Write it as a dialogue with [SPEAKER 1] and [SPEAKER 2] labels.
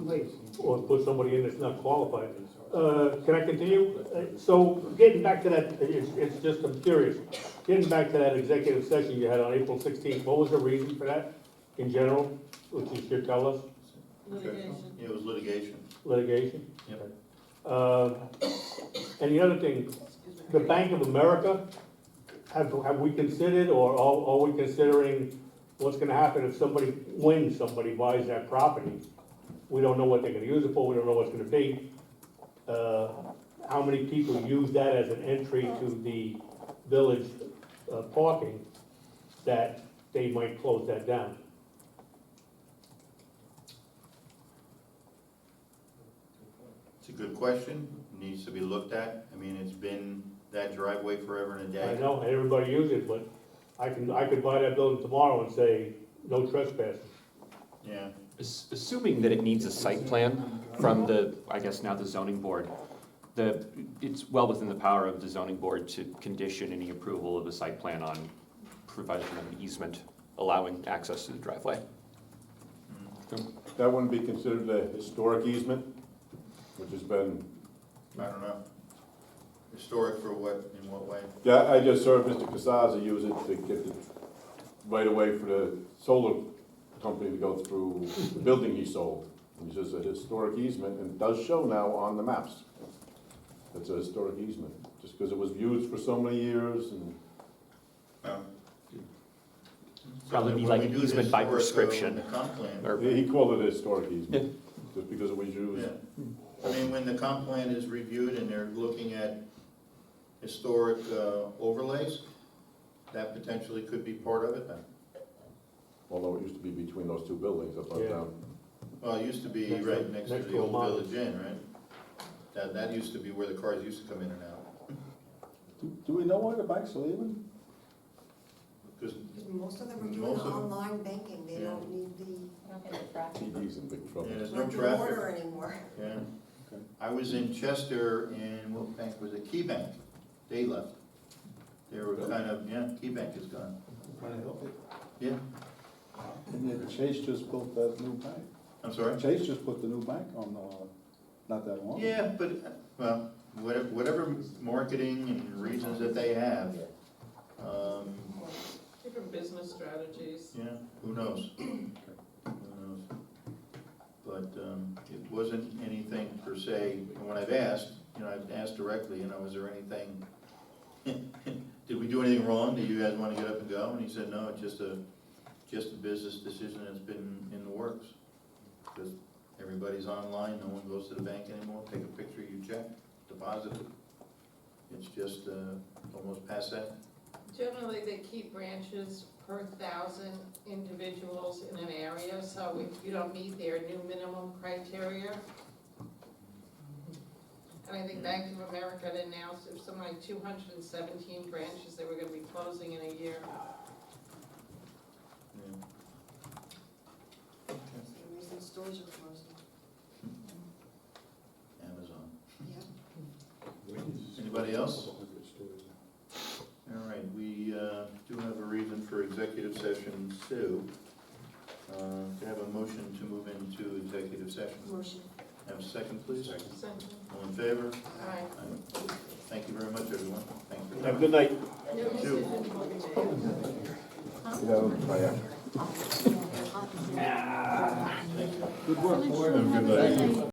[SPEAKER 1] please.
[SPEAKER 2] or put somebody in that's not qualified. Uh, Can I continue? Uh, So getting back to that, it's, it's just, I'm curious, getting back to that executive session you had on April sixteenth, what was the reason for that in general, which you should tell us,
[SPEAKER 3] Litigation.
[SPEAKER 4] It was litigation.
[SPEAKER 2] litigation?
[SPEAKER 4] Yep.
[SPEAKER 2] Uh, And the other thing, the Bank of America, have, have we considered, or are, are we considering what's gonna happen if somebody, when somebody buys that property? We don't know what they're gonna use it for, we don't know what's gonna be. Uh, how many people use that as an entry to the village uh, parking, that they might close that down?
[SPEAKER 4] It's a good question, needs to be looked at. I mean, it's been that driveway forever and a
[SPEAKER 2] I
[SPEAKER 4] day.
[SPEAKER 2] know, everybody uses it, but I can, I could buy that building tomorrow and say, no trespassing.
[SPEAKER 4] Yeah,
[SPEAKER 5] Ass- Assuming that it needs a site plan from the, I guess now the zoning board, the, it's well within the power of the zoning board to condition any approval of a site plan on provision of an easement allowing access to the driveway.
[SPEAKER 6] That wouldn't be considered a historic easement, which has been,
[SPEAKER 4] I don't know. Historic for what, in what way?
[SPEAKER 6] yeah, I just heard Mr. Casaza use it to get the right away for the solar company to go through the building he sold. Which is a historic easement and does show now on the maps. It's a historic easement, just because it was used for so many years and
[SPEAKER 4] No.
[SPEAKER 5] Probably be
[SPEAKER 4] Um, When
[SPEAKER 5] like
[SPEAKER 4] we
[SPEAKER 5] an
[SPEAKER 4] do this
[SPEAKER 5] easement by
[SPEAKER 4] work, uh,
[SPEAKER 5] prescription.
[SPEAKER 4] The comp plan,
[SPEAKER 5] Or-
[SPEAKER 6] he called it a historic easement,
[SPEAKER 5] Yeah.
[SPEAKER 6] just because it was used.
[SPEAKER 4] yeah. I mean, when the comp plan is reviewed and they're looking at historic uh, overlays, that potentially could be part of it then.
[SPEAKER 6] Although it used to be between those two buildings up
[SPEAKER 2] Yeah.
[SPEAKER 6] and down.
[SPEAKER 4] Well, it used to be
[SPEAKER 2] Next to-
[SPEAKER 4] right next to
[SPEAKER 2] next
[SPEAKER 4] the
[SPEAKER 2] to a
[SPEAKER 4] old
[SPEAKER 2] mall.
[SPEAKER 4] Village Inn, right? That, that used to be where the cars used to come in and out.
[SPEAKER 6] Do do we know why the banks are leaving?
[SPEAKER 4] Because
[SPEAKER 7] Most of them are doing
[SPEAKER 4] Most of them.
[SPEAKER 7] online banking, they
[SPEAKER 4] Yeah.
[SPEAKER 7] don't need the,
[SPEAKER 6] TD's in big trouble.
[SPEAKER 4] Yeah, there's no
[SPEAKER 7] not the
[SPEAKER 4] traffic,
[SPEAKER 7] order anymore.
[SPEAKER 4] yeah. I was in Chester and what bank was it? Key Bank. They left. They were kind of, yeah, Key Bank is gone. Yeah,
[SPEAKER 8] And then Chase just built that new bank.
[SPEAKER 4] I'm sorry.
[SPEAKER 8] Chase just put the new bank on, uh, not that long. ago.
[SPEAKER 4] Yeah, but, well, whatever, whatever marketing and reasons that they have, um,
[SPEAKER 3] Different business strategies.
[SPEAKER 4] yeah, who knows? Who knows? But, um, it wasn't anything per se, and when I've asked, you know, I've asked directly, you know, was there anything? Did we do anything wrong? Do you guys wanna get up and go? And he said, no, it's just a, just a business decision that's been in the works. Because everybody's online, no one goes to the bank anymore, take a picture, you check, deposit it. It's just, uh, almost past that.
[SPEAKER 3] Generally, they keep branches per thousand individuals in an area, so if you don't meet their new minimum criteria. And I think Bank of America had announced if something like two hundred and seventeen branches they were gonna be closing in a year.
[SPEAKER 4] Yeah.
[SPEAKER 7] That's the reason stores are closing.
[SPEAKER 4] Amazon.
[SPEAKER 7] Yeah.
[SPEAKER 4] Anybody else? All right, we uh, do have a reason for executive session two. Uh, Can I have a motion to move into executive session?
[SPEAKER 7] Motion.
[SPEAKER 4] Have a second, please?
[SPEAKER 3] Sentence.
[SPEAKER 4] All in favor?
[SPEAKER 3] Aye.
[SPEAKER 4] Aye. Thank you very much, everyone. Thank you.
[SPEAKER 2] Have a good night.
[SPEAKER 3] No decision will be made.
[SPEAKER 7] Yeah.
[SPEAKER 8] Good work, boy.
[SPEAKER 6] Good night.